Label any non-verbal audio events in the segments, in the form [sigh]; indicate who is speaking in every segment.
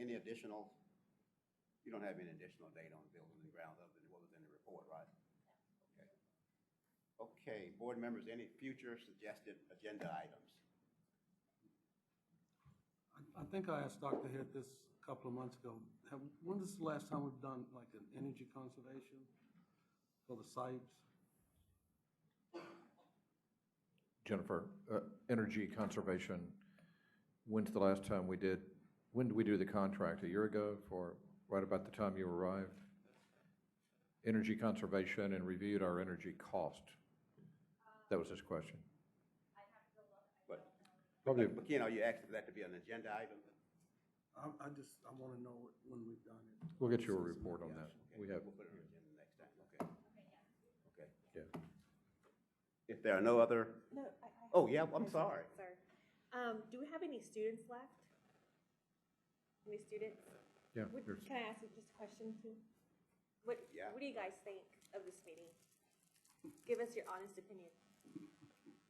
Speaker 1: Any additional, you don't have any additional data on building and grounds other than what was in the report, right? Okay. Okay, board members, any future suggested agenda items?
Speaker 2: I- I think I asked Dr. Hitt this a couple of months ago. Have- When is the last time we've done like an energy conservation for the sites?
Speaker 3: Jennifer, uh, energy conservation, when's the last time we did, when did we do the contract? A year ago for, right about the time you arrived? Energy conservation and reviewed our energy cost. That was his question.
Speaker 1: But,
Speaker 3: Probably,
Speaker 1: but Ken, are you asking for that to be an agenda item?
Speaker 2: I, I just, I want to know what- when we've done it.
Speaker 3: we'll get you a report on that.
Speaker 1: Okay,
Speaker 3: We have,
Speaker 1: We'll put it on the agenda next time, okay? Okay.
Speaker 3: yeah.
Speaker 1: If there are no other,
Speaker 4: No, I, I.
Speaker 1: oh, yeah, I'm sorry.
Speaker 4: Sorry. Um, do we have any students left? Any students?
Speaker 3: Yeah,
Speaker 4: Would-
Speaker 3: there's-
Speaker 4: Can I ask you just a question too? What,
Speaker 1: Yeah.
Speaker 4: what do you guys think of this meeting? Give us your honest opinion.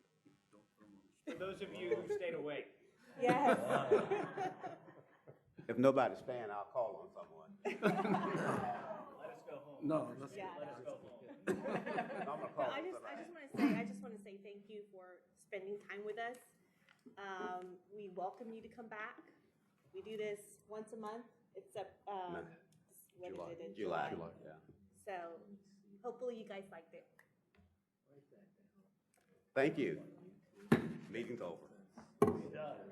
Speaker 1: [laughs]
Speaker 5: For those of you who stayed awake.
Speaker 4: Yes,
Speaker 1: If nobody's staying, I'll call on someone.
Speaker 4: [laughs]
Speaker 5: Let us go home.
Speaker 2: No, that's,
Speaker 4: Yeah.
Speaker 5: Let us go home.
Speaker 1: [laughs]
Speaker 2: [laughs]
Speaker 1: I'm gonna call
Speaker 4: I
Speaker 1: on
Speaker 4: just, I
Speaker 1: somebody.
Speaker 4: just want to say, I just want to say thank you for spending time with us. Um, we welcome you to come back. We do this once a month, except, um, when is it in
Speaker 1: July, yeah.
Speaker 4: So hopefully you guys liked it.
Speaker 1: Thank you. Meeting's over.
Speaker 5: Done.